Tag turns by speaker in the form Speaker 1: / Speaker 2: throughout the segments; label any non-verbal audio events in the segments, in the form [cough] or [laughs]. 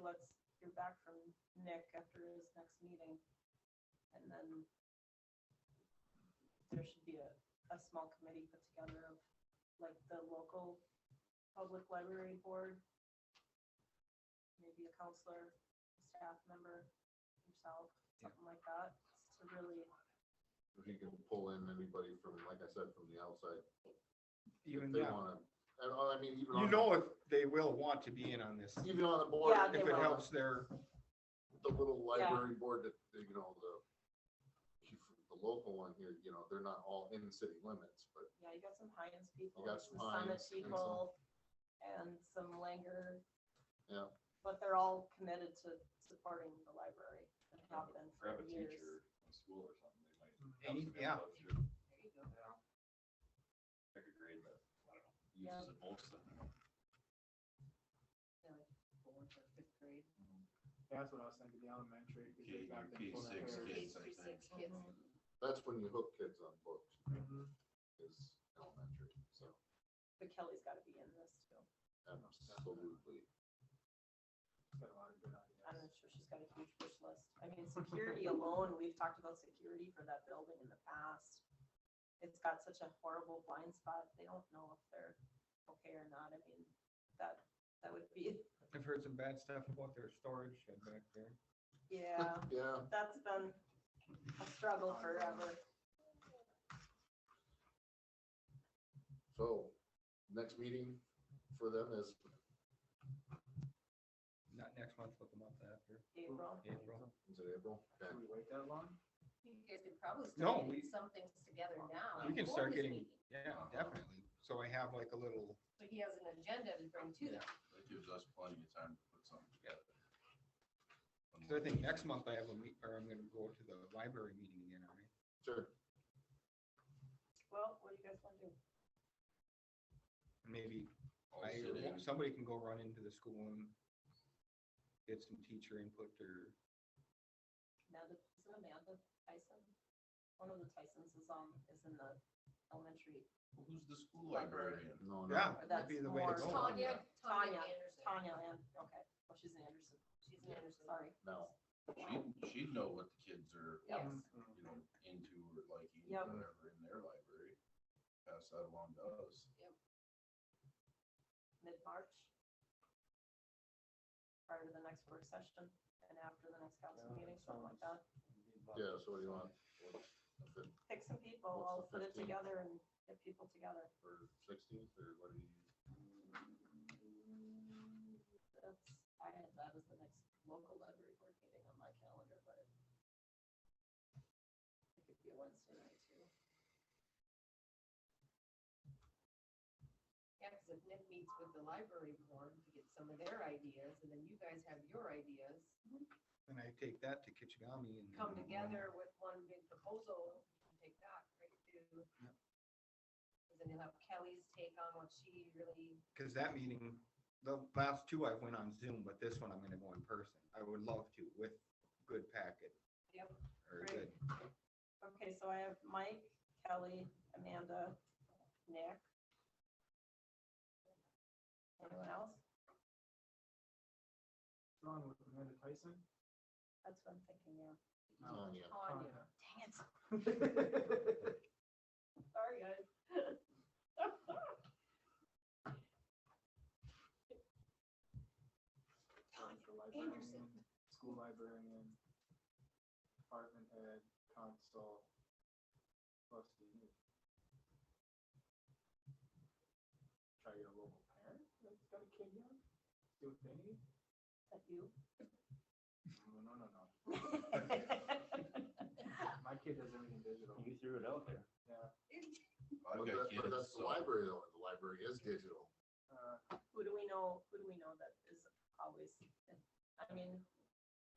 Speaker 1: let's hear back from Nick after his next meeting. And then there should be a, a small committee put together of like the local public library board, maybe a counselor, staff member, yourself, something like that, to really,
Speaker 2: If you can pull in anybody from, like I said, from the outside, if
Speaker 3: Even
Speaker 2: they
Speaker 3: now,
Speaker 2: wanna, and oh, I mean, even
Speaker 3: you
Speaker 2: on,
Speaker 3: know if they will want to be in on this,
Speaker 2: even on the board,
Speaker 1: Yeah, they
Speaker 3: if
Speaker 2: if
Speaker 3: it
Speaker 1: will.
Speaker 3: helps their,
Speaker 2: the little
Speaker 1: Yeah.
Speaker 2: library board that, that, you know, the the local one here, you know, they're not all in city limits, but
Speaker 1: yeah, you got some Heinz people,
Speaker 2: got
Speaker 1: some
Speaker 2: some
Speaker 1: Summit
Speaker 2: Heinz and some-
Speaker 1: people, and some Langer.
Speaker 2: Yeah.
Speaker 1: But they're all committed to supporting the library and have been for
Speaker 4: grab a
Speaker 1: years.
Speaker 4: teacher from school or something, they might. have
Speaker 3: Any-
Speaker 4: some
Speaker 3: yeah.
Speaker 4: input too. Pick a grade that, I don't know,
Speaker 1: Yeah.
Speaker 4: uses it most of them.
Speaker 5: That's what I was thinking, the elementary. because
Speaker 4: K
Speaker 5: they got them
Speaker 4: K
Speaker 5: full of
Speaker 4: six
Speaker 5: their-
Speaker 4: kids, I think.
Speaker 2: that's when you hook kids on books,
Speaker 5: Mhm.
Speaker 2: is elementary, so
Speaker 1: But Kelly's gotta be in this too.
Speaker 2: absolutely.
Speaker 5: Got a lot of good
Speaker 1: I'm
Speaker 5: ideas.
Speaker 1: not sure she's got a huge wish list. I mean,
Speaker 2: [laughs]
Speaker 1: security alone, we've talked about security for that building in the past. It's got such a horrible blind spot. They don't know if they're okay or not. I mean, that, that would be, [laughs]
Speaker 3: I've heard some bad stuff about their storage shed back there.
Speaker 1: yeah,
Speaker 2: Yeah,
Speaker 1: that's been a struggle forever.
Speaker 2: so, next meeting for them is
Speaker 3: Not next month, but the month after,
Speaker 1: April,
Speaker 3: April.
Speaker 2: Is it April? Okay.
Speaker 5: Should we wait that long?
Speaker 6: You guys could probably
Speaker 3: No,
Speaker 6: start
Speaker 3: we-
Speaker 6: getting some things together now.
Speaker 1: Uh,
Speaker 3: We can start
Speaker 6: before this
Speaker 3: getting,
Speaker 6: meeting.
Speaker 3: yeah, definitely. So I have like a little,
Speaker 6: So he has an agenda to bring to them.
Speaker 4: That gives us plenty of time to put something together.
Speaker 3: so I think next month I have a meet, or I'm gonna go to the library meeting again, all right?
Speaker 2: Sure.
Speaker 1: well, what do you guys want to do?
Speaker 3: Maybe
Speaker 2: Oh,
Speaker 4: All
Speaker 3: I,
Speaker 4: sit in.
Speaker 3: somebody can go run into the school and get some teacher input or,
Speaker 1: Amanda, is it Amanda Tyson? One of the Tysons is on, is in the elementary.
Speaker 4: Well, Who's the school librarian?
Speaker 2: Oh, No, no.
Speaker 3: yeah,
Speaker 1: But
Speaker 3: that'd be
Speaker 1: that's
Speaker 3: the way to
Speaker 1: more
Speaker 3: go.
Speaker 1: Tanya.
Speaker 6: Tanya, Tanya Anderson.
Speaker 1: Tanya, and, okay, well, she's in Anderson.
Speaker 6: She's an Anderson.
Speaker 1: Sorry.
Speaker 2: No.
Speaker 4: She'd, she'd know what the kids are,
Speaker 6: Yes.
Speaker 5: Mm-hmm.
Speaker 4: you know, into or liking,
Speaker 1: Yep.
Speaker 4: or whatever in their library. Pass that along to us.
Speaker 1: mid-March. Prior to the next work session and after the next council
Speaker 5: Yeah,
Speaker 1: meeting,
Speaker 5: that
Speaker 1: something like that.
Speaker 5: sounds-
Speaker 2: Yeah, so what do you want? Fif-
Speaker 1: Pick some people, I'll
Speaker 2: What's
Speaker 1: put
Speaker 2: the
Speaker 1: it
Speaker 2: 15?
Speaker 1: together and get people together.
Speaker 2: Or sixteenth, or what do you?
Speaker 1: That's, I had that as the next local library board meeting on my calendar, but it it could be a Wednesday night too.
Speaker 6: Yeah, because if Nick meets with the library board to get some of their ideas, and then you guys have your ideas,
Speaker 3: and I take that to Kichigami and.
Speaker 6: come together with one big proposal, you can take that right to.
Speaker 3: Yep.
Speaker 6: And then you'll have Kelly's take on what she really,
Speaker 3: Cause that meeting, the last two I went on Zoom, but this one I'm gonna go in person. I would love to with good packet
Speaker 6: yep,
Speaker 3: or
Speaker 1: Right.
Speaker 3: good.
Speaker 1: Okay, so I have Mike, Kelly, Amanda, Nick. Anyone else?
Speaker 5: Strong with Amanda Tyson?
Speaker 1: That's what I'm thinking, yeah.
Speaker 2: Oh, yeah.
Speaker 6: Tanya.
Speaker 5: [laughs]
Speaker 1: Dang it.
Speaker 5: Tanya.
Speaker 1: Sorry, guys. [laughs]
Speaker 5: The librarian, School librarian, department head, council. trustee. Try to get a local parent that's got a kid young, see what they need.
Speaker 1: Is that you? [laughs]
Speaker 5: No, no, no, no.
Speaker 1: Well,
Speaker 5: My kid does everything digital.
Speaker 7: You threw it out there.
Speaker 5: Yeah.
Speaker 4: I've
Speaker 2: But
Speaker 4: got
Speaker 2: that- but
Speaker 4: kids,
Speaker 2: that's the
Speaker 4: so-
Speaker 2: library, though, the library is digital.
Speaker 5: Uh,
Speaker 1: Who do we know, who do we know that is always, I mean,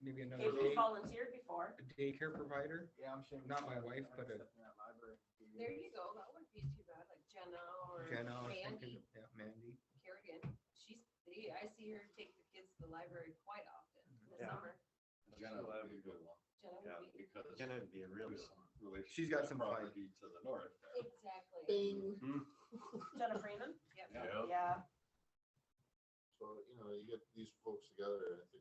Speaker 3: Maybe another
Speaker 1: Kate
Speaker 3: day,
Speaker 1: volunteered before.
Speaker 3: a daycare provider.
Speaker 5: Yeah, I'm sure.
Speaker 3: Not my wife, but a-
Speaker 5: Yeah, library.
Speaker 6: there you go, that wouldn't be too bad, like Jenna or
Speaker 3: Jenna, I was thinking,
Speaker 6: Mandy
Speaker 3: yeah, Mandy.
Speaker 6: Kerrigan, she's, they- I see her take the kids to the library quite often in the
Speaker 7: Yeah.
Speaker 6: summer.
Speaker 4: Jenna would be a good one.
Speaker 6: Jenna
Speaker 7: Yeah,
Speaker 6: would be,
Speaker 4: because.
Speaker 7: Jenna would be a real
Speaker 4: there's
Speaker 7: good
Speaker 4: some relation
Speaker 3: She's
Speaker 4: to
Speaker 3: got
Speaker 4: that
Speaker 3: some fight.
Speaker 4: property to the north. there.
Speaker 6: exactly,
Speaker 2: Bing.
Speaker 1: Jenna Freeman?
Speaker 6: yep.
Speaker 4: Yeah.
Speaker 1: Yeah,
Speaker 2: So, you know, you get these folks together, I think